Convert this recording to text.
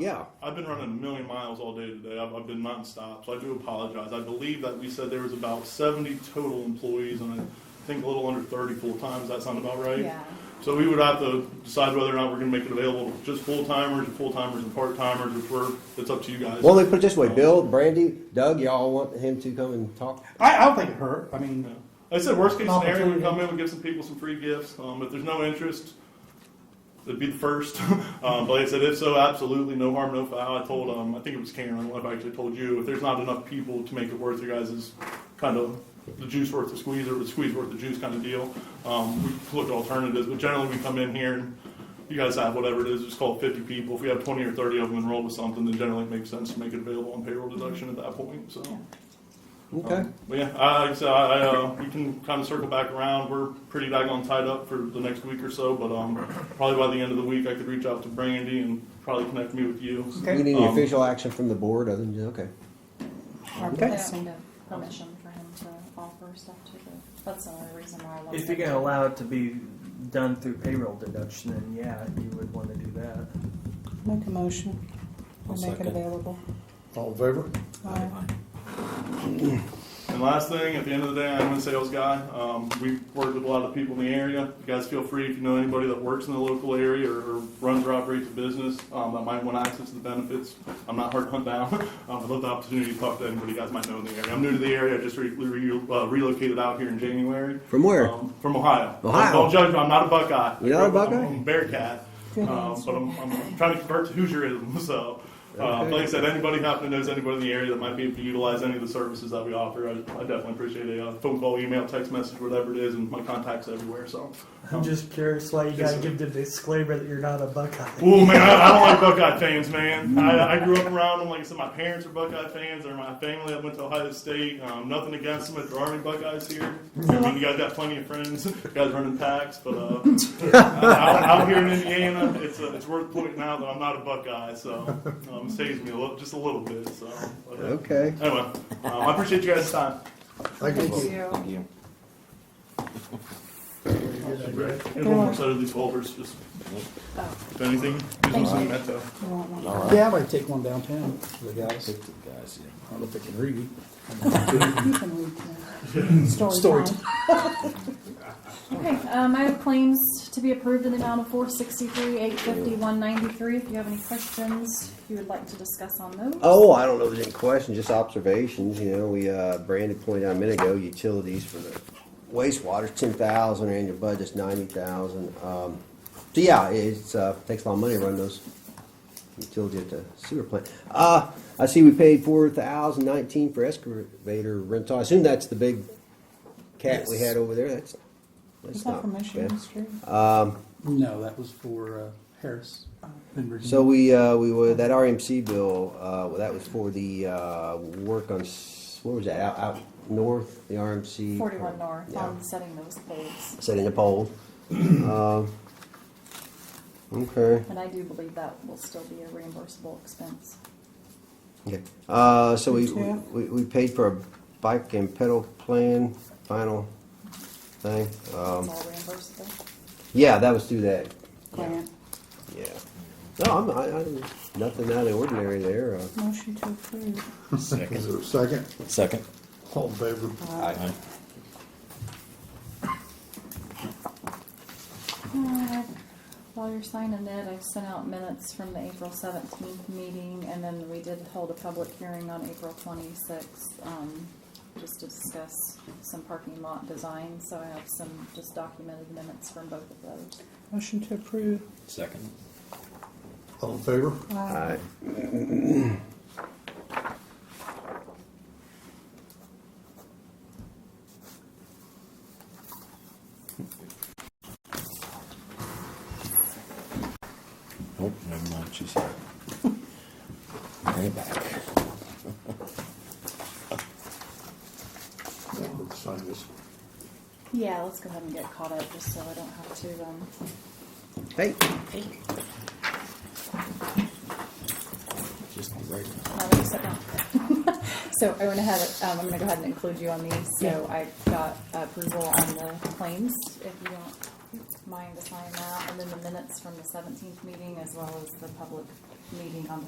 Yeah. I've been running a million miles all day today. I've, I've been nonstop, so I do apologize. I believe that we said there was about 70 total employees, and I think a little under 30 full times. Does that sound about right? Yeah. So we would have to decide whether or not we're going to make it available to just full timers and full timers and part timers. If we're, it's up to you guys. Well, let me put it this way, Bill, Brandy, Doug, y'all want him to come and talk? I, I don't think it hurt. I mean, Yeah. Like I said worst case scenario, we Opportunity. come in, we give some people some free gifts. Um, if there's no interest, it'd be the first. um, but like I said, if so, absolutely no harm, no foul. I told, um, I think it was Karen. I don't know if I actually told you. If there's not enough people to make it worth your guys' kind of the juice worth the squeeze or the squeeze worth the juice kind of deal, um, we look at alternatives. But generally, we come in here and you guys have whatever it is. It's called 50 people. If we have 20 or 30 of them enrolled with something, then generally it makes sense to make it available on payroll deduction at that point. So. Okay. But yeah, I, like I said, I, I, uh, we can kind of circle back around. We're pretty daggone tied up for the next week or so, but um, probably by the end of the week, I could reach out to Brandy and probably connect me with you. okay. We need any Um, official action from the board other than, okay. Or Okay. asking to permission for him to offer stuff to the, that's the only reason why I love If you're gonna allow it to be done through payroll deduction, then yeah, you would want to do that. Make a motion. I'll I'll make it second. available. All in favor? Aye. And last thing, at the end of the day, I'm a sales guy. Um, we work with a lot of people in the area. You guys feel free if you know anybody that works in the local area or, or runs or operates a business um, that might want access to the benefits. I'm not hard to hunt down. Um, I'd love the opportunity to talk to anybody you guys might know in the area. I'm new to the area. I just re- re- uh, relocated out here in January. From where? Um, from Ohio. Ohio. Don't judge me. I'm not a Buckeye. You're not a I'm- Buckeye? I'm a Bearcat. Good Um, answer. but I'm, I'm trying to convert to Hoosierism. So, uh, Okay. like I said, anybody happening knows anybody in the area that might be able to utilize any of the services that we offer, I, I definitely appreciate a uh, phone call, email, text message, whatever it is, and my contacts everywhere. So, I'm just curious why you Yes, gotta sir. give the disclaimer that you're not a Buckeye. Ooh, man, I, I don't like Buckeye fans, man. I, I grew up around them. Like I said, my parents are Buckeye fans. They're my family. I went to Ohio State. Um, nothing against them. If there are any Buckeyes here, I mean, you guys got plenty of friends. You guys running packs, but uh, out, out here in Indiana, it's uh, it's worth pointing out that I'm not a Buckeye, so um, it saves me a little, just a little bit. So but, uh, Okay. anyway, um, I appreciate you guys' time. Thank you. Thank you. you. And one more set of these folders, just Oh, if anything, Thank just you. that though. you want one? All right. Yeah, I'm gonna take one downtown for the guys. Take the guys, yeah. I don't know if they can read. You can read that. Story Story time. Okay, um, I have claims to be approved in the amount of four sixty-three, eight fifty, one ninety-three. If you have any questions, if you would like to discuss on those. Oh, I don't know if there's any questions, just observations, you know, we, uh, Brandon pointed out a minute ago, utilities for the wastewater's ten thousand, our annual budget's ninety thousand, um, so yeah, it's, uh, takes a lot of money to run those utility at the sewer plant. Uh, I see we paid four thousand nineteen for excavator rental, I assume that's the big cat we had over there, that's, Is that's that not from Michigan bad. Street? No, that was for uh, Harris in Virginia. So we, uh, we were, that RMC bill, uh, well, that was for the, uh, work on, s- what was that, out, out north, the RMC? Forty-one north Yeah. on setting those poles. Setting the pole. Um, Okay, And I do believe that will still be a reimbursable expense. okay. Uh, so we, Yeah. we, we paid for a bike and pedal plan, final thing. It's Um, all reimbursable. yeah, that was through that, Grant, yeah. No, I'm, I, I, nothing out of the ordinary there, uh, motion to approve. Is Second. there a second? Second. All in favor? Aye. Uh, While you're signing it, I sent out minutes from the April seventeenth meeting, and then we did hold a public hearing on April twenty-sixth, um, just to discuss some parking lot design, so I have some just documented minutes from both of those. Motion to approve. Second. All in favor? Uh, I, Nope, Oh, never mind, she said. Bring it back. Yeah, let's sign this. Yeah, let's go ahead and get caught up, just so I don't have to, um, hey, Just the right one. Uh, wait a second. So I went ahead, um, I'm gonna go ahead and include you on these, so I got approval on the claims, if you don't mind to sign that, and then the minutes from the seventeenth meeting, as well as the public meeting on the